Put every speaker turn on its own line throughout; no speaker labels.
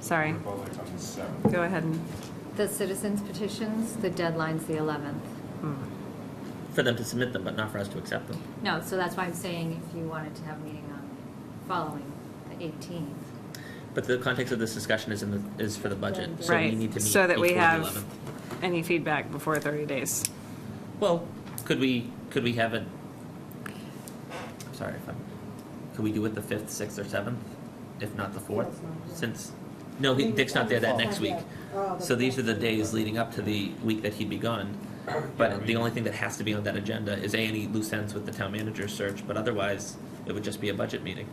sorry.
We're both on the seventh.
Go ahead and,
The citizens petitions, the deadline's the 11th.
for them to submit them, but not for us to accept them.
No, so that's why I'm saying if you wanted to have a meeting on following the 18th.
But the context of this discussion is in the, is for the budget, so we need
right,
to meet
so that we
before the
have
11th.
any feedback before 30 days.
Well, could we, could we have it? Sorry, if I'm, could we do it the fifth, sixth, or seventh, if not the fourth? Since, no, he- Dick's not there that next week. So these are the days leading up to the week that he'd be gone.
Yeah,
But
we-
the only thing that has to be on that agenda is A, any loose ends with the town manager search, but otherwise, it would just be a budget meeting,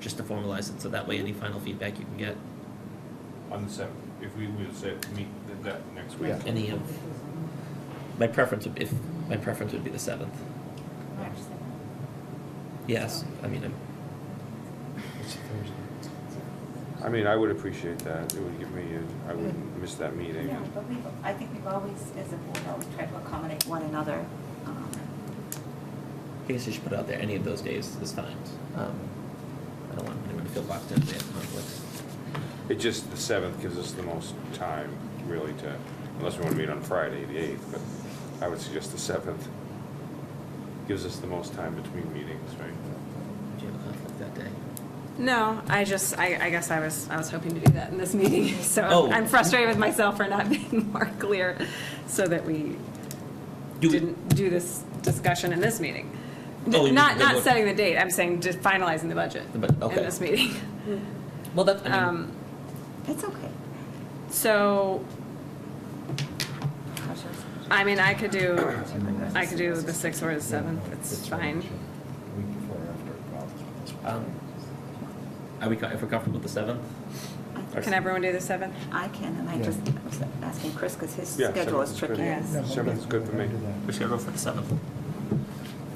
just to formalize it, so that way any final feedback you can get,
On the seventh, if we would say, meet th- that next week.
Yeah.
any of. My preference would, if, my preference would be the seventh.
March
Yes, I mean, I'm,
It's a Thursday.
I mean, I would appreciate that. It would give me, a- I wouldn't miss that meeting.
No, but we, I think we've always, as a board, always tried to accommodate one another. um,
I guess you should put out there any of those days is fine. Um, I don't want anyone to feel locked in if they have conflicts.
It just, the seventh gives us the most time, really, to, unless we want to meet on Friday, the eighth, but I would suggest the seventh. Gives us the most time between meetings, right?
Do you have a conflict that day?
No, I just, I, I guess I was, I was hoping to do that in this meeting, so
Oh.
I'm frustrated with myself for not being more clear so that we
Do we-
didn't do this discussion in this meeting.
Oh, you mean
Not,
the
not
vote.
setting the date, I'm saying just finalizing the budget
The bud-
in
okay.
this meeting.
Well, that, I mean,
Um,
It's okay.
So, I mean, I could do, I could do the 6th or the 7th, it's fine.
Week before after.
um, are we, co- if we're comfortable with the seventh?
I-
Can everyone do the 7th?
I can, and I
Yeah.
just I was asking Chris, because his
Yeah,
schedule is
seventh is
tricky.
good.
as-
Seventh's good for me.
We should go for the seventh.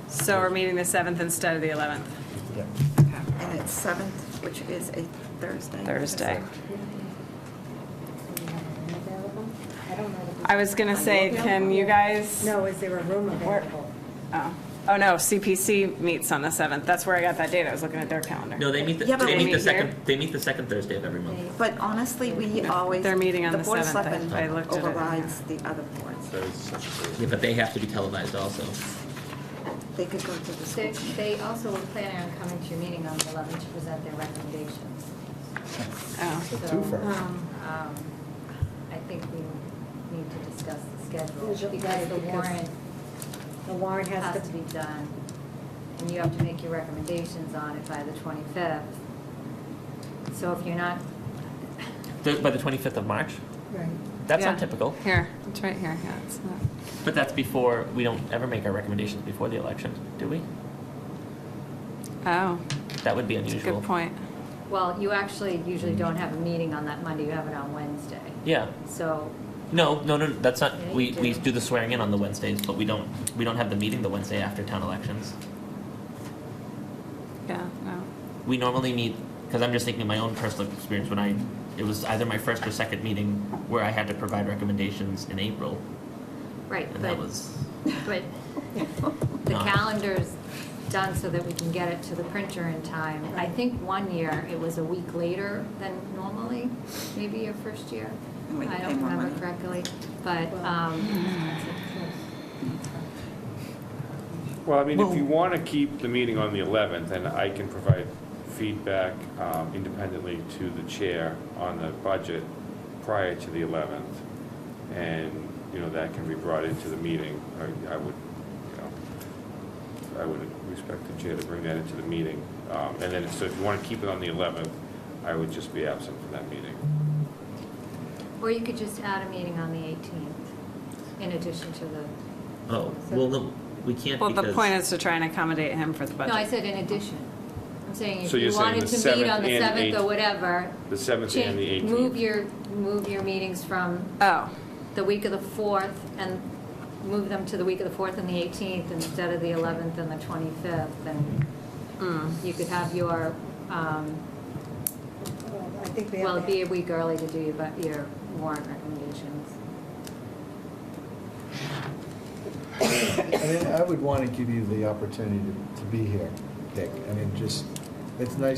So we're meeting the 7th instead of the 11th.
And it's seventh, which is a Thursday.
Thursday.
I don't know.
I was gonna say, can you guys?
No, is there a room available?
Oh, oh no, CPC meets on the 7th. That's where I got that date. I was looking at their calendar.
No, they meet, the-
Yeah, but
they
we
meet the
meet here.
second, they meet the second Thursday of every month.
But honestly, we always.
They're meeting on the
Board of
7th. I-
Selectmen
I looked at it, yeah.
Overrides the other boards.
That is such a
Yeah,
thing.
but they have to be televised also.
They could go to the school.
They-
committee.
They also were planning on coming to your meeting on the 11th to present their recommendations.
Oh,
So,
So twofer.
um, I think we need to discuss the
Is
schedule
it
because
right?
the
Because-
warrant
The warrant
has to be
be
done, and you have to make your recommendations on it by the 25th. So if you're not,
The- By the twenty-fifth of March?
Right.
That's
Yeah.
not typical,
here, it's right here. Yeah, it's not.
but that's before, we don't ever make our recommendations before the election, do we?
Oh,
That would be
that's a
unusual.
good point.
well, you actually usually don't have a meeting on that Monday, you have it on Wednesday.
Yeah,
So
No, no, no, that's not,
Yeah, you
we, we
do.
do the swearing in on the Wednesdays, but we don't, we don't have the meeting the Wednesday after town elections.
Yeah, no.
We normally meet, because I'm just thinking of my own personal experience when I, it was either my first or second meeting where I had to provide recommendations in April,
Right,
and
but,
that was,
but the
Not-
calendar's done so that we can get it to the printer in time. I think one year, it was a week later than normally, maybe your first year.
And we
I
pay
don't
more
remember
money.
correctly, but,
Well-
um,
Well, I mean, if
Well-
you want to keep the meeting on the eleventh, then I can provide feedback um, independently to the chair on the budget prior to the eleventh. And, you know, that can be brought into the meeting. I, I would, you know, I would respect the chair to bring that into the meeting. Um, And then, so if you want to keep it on the eleventh, I would just be absent from that meeting.
or you could just add a meeting on the 18th in addition to the,
oh, well, no, we can't
Well, the
because.
point is to try and accommodate him for the
no, I
budget.
said in addition. I'm saying if
So you're
you
saying
wanted
the
to meet
7th
on the
and
7th or
8th.
whatever,
The seventh and the E
change,
eighteenth.
move your, move your meetings from
Oh,
the week of the 4th and move them to the week of the 4th and the 18th instead of the 11th and the 25th, and you could have your, um,
Well, I think we
well,
have
it'd be a
to,
week early to do your bu- your warrant recommendations.
I mean, I would want to give you the opportunity to, to be here, Dick. I mean, just, it's nice